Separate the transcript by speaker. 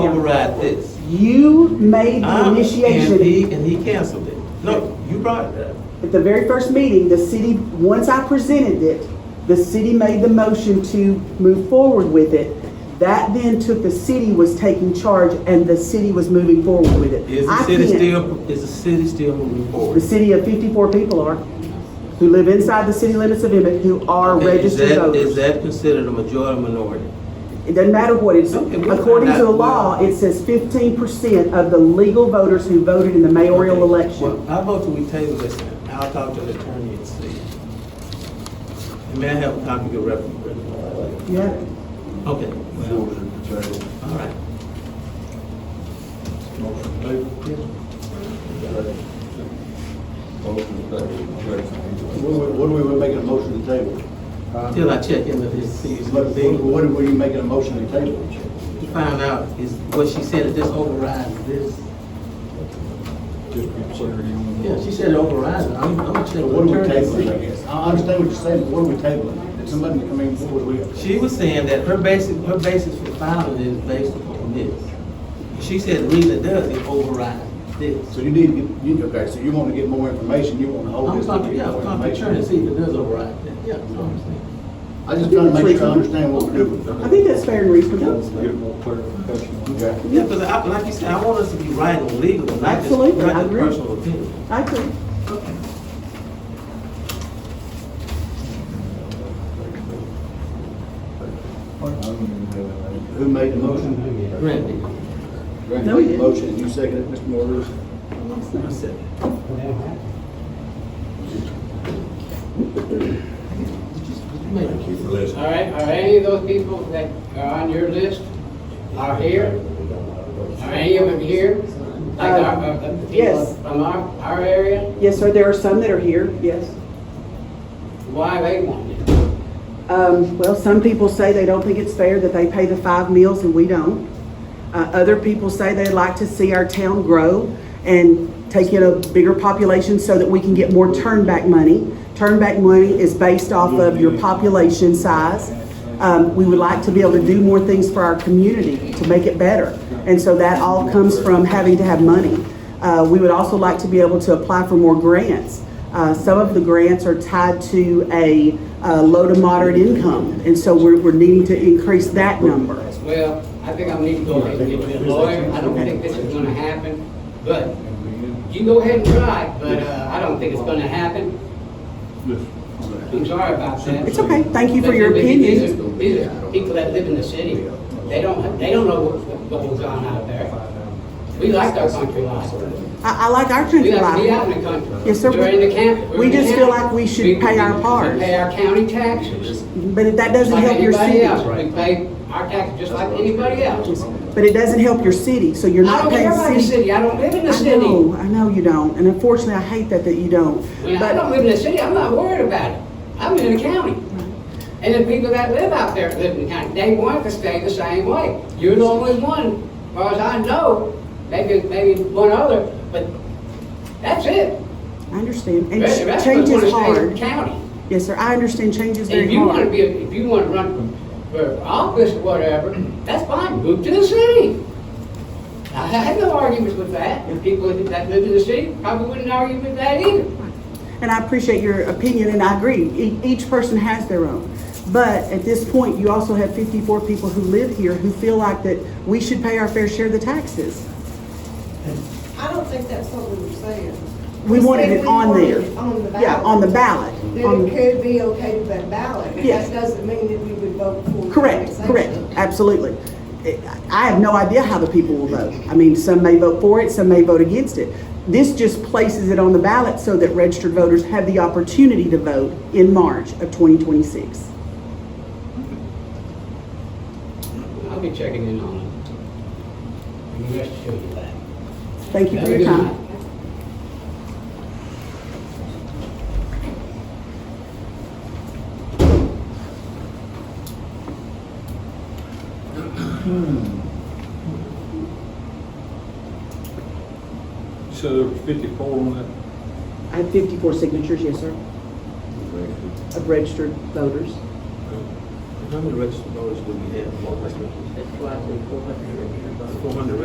Speaker 1: override this.
Speaker 2: You made the
Speaker 1: I'm- And he,
Speaker 2: initiation.
Speaker 1: and he canceled it. No, you brought it up.
Speaker 2: At the very first meeting, the city, once I presented it, the city made the motion to move forward with it. That then took, the city was taking charge and the city was moving forward with it.
Speaker 1: Is the
Speaker 2: I
Speaker 1: city
Speaker 2: can't-
Speaker 1: still, is the city still moving
Speaker 2: The
Speaker 1: forward?
Speaker 2: city of fifty-four people are, who live inside the city limits of Emmett, who are
Speaker 1: Okay, is
Speaker 2: registered
Speaker 1: that- Is
Speaker 2: voters.
Speaker 1: that considered a majority or minority?
Speaker 2: It doesn't matter what it's,
Speaker 1: Okay, we'll
Speaker 2: according
Speaker 1: find
Speaker 2: to the
Speaker 1: out.
Speaker 2: law, it says fifteen percent of the legal voters who voted in the mayoral
Speaker 1: Okay.
Speaker 2: election.
Speaker 1: Well, I vote that we table this, and I'll talk to the attorney and see. And may I have a copy of the reference?
Speaker 2: Yeah,
Speaker 1: Okay, well,
Speaker 3: Motion to table.
Speaker 1: all right.
Speaker 3: Motion to table. Motion to table.
Speaker 4: What are we, we're making a motion to table?
Speaker 1: Till I check in with his, see,
Speaker 4: What,
Speaker 1: his
Speaker 4: what-
Speaker 1: thing,
Speaker 4: what are you making a motion to table?
Speaker 1: to find out is, what she said, that this overrides this. Yeah, she said it overrides, it. I'm, I'm gonna check
Speaker 4: So What are
Speaker 1: with
Speaker 4: we
Speaker 1: the attorney.
Speaker 4: tabling, I
Speaker 1: and see.
Speaker 4: guess? I understand what you're saying, but what are we tabling? Did somebody come in, what was we?
Speaker 1: She was saying that her basic, her basis for filing is based upon this. She said the reason it does, it overrides this.
Speaker 4: So you need, to get- you, okay, so you want to get more information, you want to hold
Speaker 1: I'm
Speaker 4: this. to
Speaker 1: talking,
Speaker 4: get
Speaker 1: yeah,
Speaker 4: more
Speaker 1: I'm talking to
Speaker 4: information.
Speaker 1: Turner, and see if it does override that, yeah, that's what I'm saying.
Speaker 4: I just trying to make sure I understand what we're doing.
Speaker 2: I think that's fair and reasonable.
Speaker 3: Get more clarification. on that.
Speaker 4: Okay.
Speaker 1: Yeah, because I, like you said, I want us to be right and legal, and not just,
Speaker 2: Absolutely, I
Speaker 1: not just
Speaker 2: agree.
Speaker 1: personal opinion.
Speaker 2: I agree.
Speaker 4: Who made the motion?
Speaker 1: Randy,
Speaker 4: Grant
Speaker 2: No, he
Speaker 4: made the
Speaker 2: didn't.
Speaker 4: motion, and you seconded it, Mr. Morris.
Speaker 1: I said, you made a case.
Speaker 5: All right, are any of those people that are on your list are here? Are any of them here? Like our, uh, the people
Speaker 2: Yes.
Speaker 5: from our, our area?
Speaker 2: Yes, sir, there are some that are here, yes.
Speaker 5: Why they want it?
Speaker 2: Um, well, some people say they don't think it's fair that they pay the five meals and we don't. Uh, other people say they'd like to see our town grow and take in a bigger population so that we can get more turnback money. Turnback money is based off of your population size. Um, we would like to be able to do more things for our community to make it better. And so that all comes from having to have money. Uh, we would also like to be able to apply for more grants. Uh, Some of the grants are tied to a uh, low to moderate income, and so we're, we're needing to increase that number.
Speaker 5: Well, I think I need to go ahead and get me a lawyer. I don't think this is gonna happen, but you go ahead and try, but, uh, I don't think it's gonna happen. I'm sorry about that.
Speaker 2: It's okay, thank you for
Speaker 5: But
Speaker 2: your
Speaker 5: these- these
Speaker 2: opinion.
Speaker 5: are- These are people that live in the city, they don't, they don't know what- what goes on out there. We like our country life.
Speaker 2: I, I like our country
Speaker 5: We like to be out
Speaker 2: life.
Speaker 5: in the country.
Speaker 2: Yes, sir.
Speaker 5: We're in the camp. we're
Speaker 2: We
Speaker 5: in the
Speaker 2: just
Speaker 5: county.
Speaker 2: feel like we should
Speaker 5: We-
Speaker 2: pay our
Speaker 5: we
Speaker 2: part.
Speaker 5: Pay our county taxes.
Speaker 2: but that doesn't
Speaker 5: Like
Speaker 2: help your
Speaker 5: anybody
Speaker 2: city.
Speaker 5: else, we pay our taxes just like anybody else.
Speaker 2: But it doesn't help your city, so you're
Speaker 5: I
Speaker 2: not
Speaker 5: don't
Speaker 2: paying
Speaker 5: care about the
Speaker 2: city.
Speaker 5: city, I don't live in the
Speaker 2: I
Speaker 5: city.
Speaker 2: know, I know you don't, and unfortunately, I hate that, that you don't.
Speaker 5: When I
Speaker 2: But-
Speaker 5: don't live in the city, I'm not worried about it. I'm in the county. And the people that live out there live in the county, they want to stay the same way. You're the only one, as far as I know, maybe, maybe one other, but that's it.
Speaker 2: I understand, and
Speaker 5: The rest of us
Speaker 2: change
Speaker 5: wanna
Speaker 2: is
Speaker 5: stay in the
Speaker 2: hard.
Speaker 5: County.
Speaker 2: Yes, sir, I understand change is
Speaker 5: If
Speaker 2: very
Speaker 5: you wanna
Speaker 2: hard.
Speaker 5: be, if you wanna run for for office or whatever, that's fine, move to the city. I had no arguments with that, and people that live in the city probably wouldn't argue with that either.
Speaker 2: And I appreciate your opinion, and I agree, E- each person has their own. But at this point, you also have fifty-four people who live here who feel like that we should pay our fair share of the taxes.
Speaker 6: I don't think that's what we were saying.
Speaker 2: We wanted
Speaker 6: said
Speaker 2: it
Speaker 6: we
Speaker 2: on
Speaker 6: wanted
Speaker 2: there.
Speaker 6: it On the ballot.
Speaker 2: Yeah, on the ballot.
Speaker 6: That
Speaker 2: On-
Speaker 6: it could be okay to that ballot. but
Speaker 2: Yes.
Speaker 6: That doesn't mean that we would vote for.
Speaker 2: Correct,
Speaker 6: annexation.
Speaker 2: correct, absolutely. I- I have no idea how the people will vote. I mean, some may vote for it, some may vote against it. This just places it on the ballot so that registered voters have the opportunity to vote in March of twenty twenty-six.
Speaker 5: I'll be checking in on it. You can rest assured of that.
Speaker 2: Thank you
Speaker 5: Have
Speaker 2: for
Speaker 5: a
Speaker 2: your
Speaker 5: good
Speaker 2: time.
Speaker 5: night.
Speaker 3: So there were fifty-four on that,
Speaker 2: I have fifty-four signatures, yes, sir, of registered voters.
Speaker 3: uh,
Speaker 4: how many registered voters do we have? Four hundred. Four hundred